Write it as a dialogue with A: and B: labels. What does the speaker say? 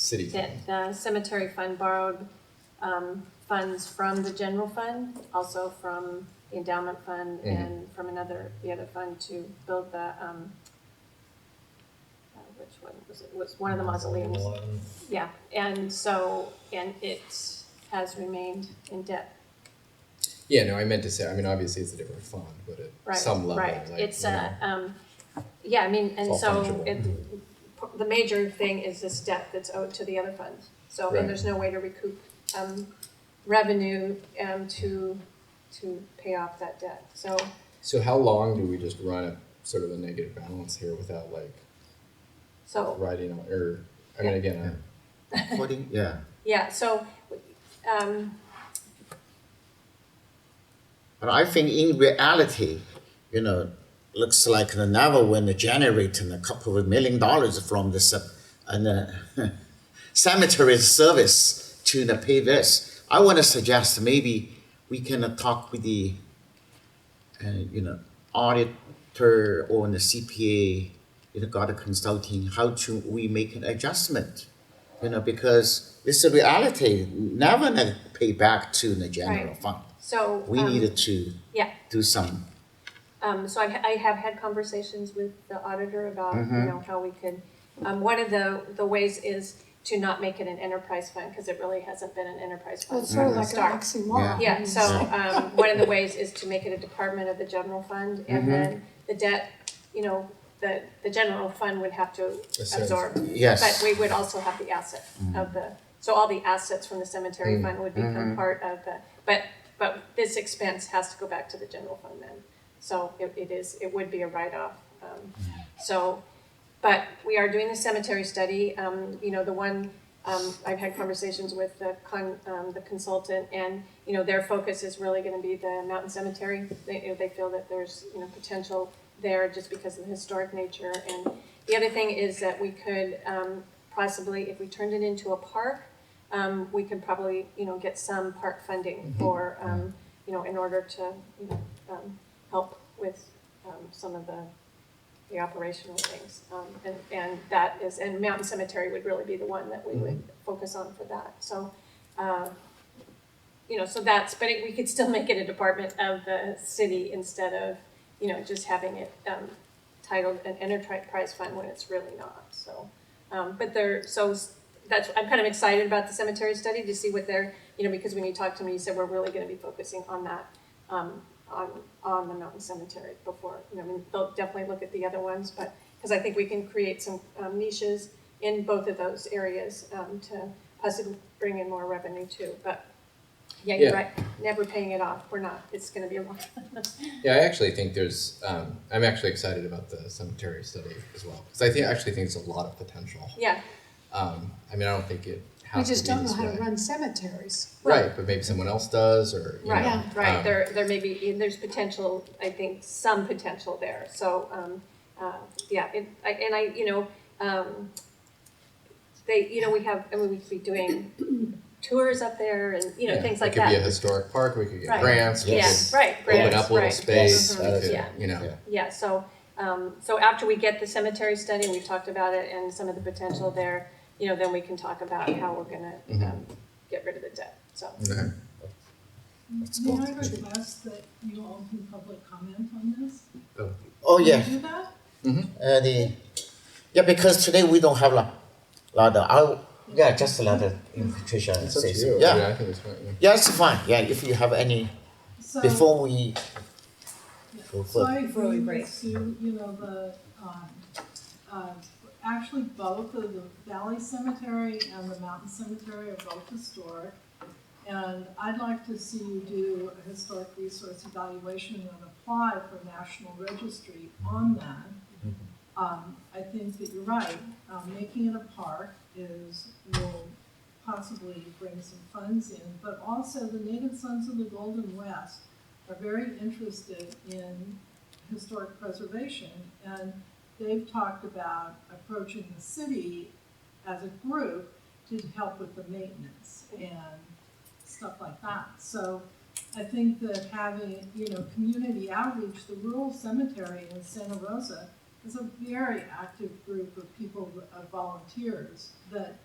A: city.
B: that the cemetery fund borrowed um, funds from the general fund, also from the endowment fund
A: Mhm.
B: and from another, the other fund to build the, um, uh, which one was it, was one of the mausoleums. Yeah, and so, and it has remained in debt,
A: Yeah, no, I meant to say, I mean, obviously it's a different fund, but
B: right?
A: at some level,
B: Right,
A: like,
B: it's
A: you know.
B: a, um, yeah, I mean, and
A: It's all
B: so
A: fungible.
B: it, the major thing is this debt that's owed to the other funds. So,
A: Right.
B: and there's no way to recoup, um, revenue, um, to, to pay off that debt, so.
A: So how long do we just run a sort of a negative balance here without like
B: So,
A: writing on, or, I mean, again, I-
C: Forty, yeah,
B: yeah, so, um,
C: but I think in reality, you know, looks like the Navajo when they generate a couple of million dollars from this uh, and uh, cemetery service to the pay this. I want to suggest maybe we can uh, talk with the, uh, you know, auditor or the CPA, you know, got a consulting, how to we make an adjustment, you know, because this is reality, never gonna pay back to the general
B: Right.
C: fund.
B: so.
C: We
B: um,
C: needed to
B: Yeah,
C: do some,
B: Um, so I've, I have had conversations with the auditor about,
A: Mm-hmm.
B: you know, how we could, um, one of the, the ways is to not make it an enterprise fund, cause it really hasn't been an enterprise
D: Well,
B: fund
D: it's sort
B: from
D: of
B: the
D: like an
B: start.
D: oxymoron.
E: Mm-hmm.
B: Yeah, so, um, one of the ways is to make it a department of the general fund, and then the debt, you know, the, the general fund would have to
A: sense.
B: absorb. But
C: yes,
B: we would also have the asset of the, so all the assets from the cemetery fund would become part of the, but, but this expense has to go back to the general fund then. So it, it is, it would be a write-off. Um, So, but we are doing the cemetery study, um, you know, the one, um, I've had conversations with the con, um, the consultant and, you know, their focus is really gonna be the mountain cemetery. They, you know, they feel that there's, you know, potential there just because of the historic nature. And the other thing is that we could, um, possibly, if we turned it into a park, um, we could probably, you know, get some park funding for, um, you know, in order to, you know, um, help with, um, some of the the operational things. Um, and, and that is, and Mountain Cemetery would really be the one that we would focus on for that. So, uh, you know, so that's, but it- we could still make it a department of the city instead of, you know, just having it, um, titled an enterprise fund when it's really not, so. Um, but there, so s- that's, I'm kind of excited about the cemetery study to see what they're, you know, because when you talked to me, you said we're really gonna be focusing on that, um, on, on the mountain cemetery before, you know, I mean, they'll definitely look at the other ones, but, because I think we can create some um, niches in both of those areas, um, to possibly bring in more revenue too, but, yeah, you're
A: Yeah.
B: right, never paying it off, we're not, it's gonna be a long.
A: yeah, I actually think there's, um, I'm actually excited about the cemetery study as well. Cause I think, I actually think it's a lot of potential.
B: Yeah,
A: Um, I mean, I don't think it
D: We
A: has to be
D: just don't know
A: this
D: how to
A: way.
D: run cemeteries.
A: Right, but maybe someone else does or, you know,
B: Right, right,
A: um,
B: there, there may be, and there's potential, I think, some potential there, so, um, uh, yeah, and I, and I, you know, um, they, you know, we have, I mean, we could be doing tours up there and, you know,
A: yeah,
B: things like
A: It could
B: that.
A: be a historic park, we could
B: Right.
A: get grants, we
B: Yeah,
A: could
B: right,
A: open
B: grants,
A: up a little
B: right.
A: space, uh,
B: Yes,
A: we could,
B: yeah.
A: you know.
C: Yeah.
B: Yeah, so, um, so after we get the cemetery study, we've talked about it and some of the potential there, you know, then we can talk about how we're gonna, um, get rid of the debt, so.
A: Okay.
E: May I request that you all do public comment on this?
C: oh yeah,
E: Can you do that?
C: uh, the, yeah, because today we don't have a lot of, I'll- yeah, just a lot of, you know, Patricia
A: It's up to
C: says,
A: you. I mean,
C: yeah.
A: I think it's fine. yeah.
C: Yeah, it's fine, yeah, if you have any,
E: So-
C: before we go
E: So
C: further.
E: I
F: Before we
E: agree
F: break.
E: with Sue, you know, the, um, uh, actually both of the Valley Cemetery and the Mountain Cemetery are both historic. And I'd like to see you do a historic resource evaluation and apply for National Registry on that. Um, I think that you're right, um, making it a park is, will possibly bring some funds in, but also the Native Sons of the Golden West are very interested in historic preservation, and they've talked about approaching the city as a group to help with the maintenance and stuff like that. So I think that having, you know, community outreach, the rural cemetery in Santa Rosa is a very active group of people, of volunteers that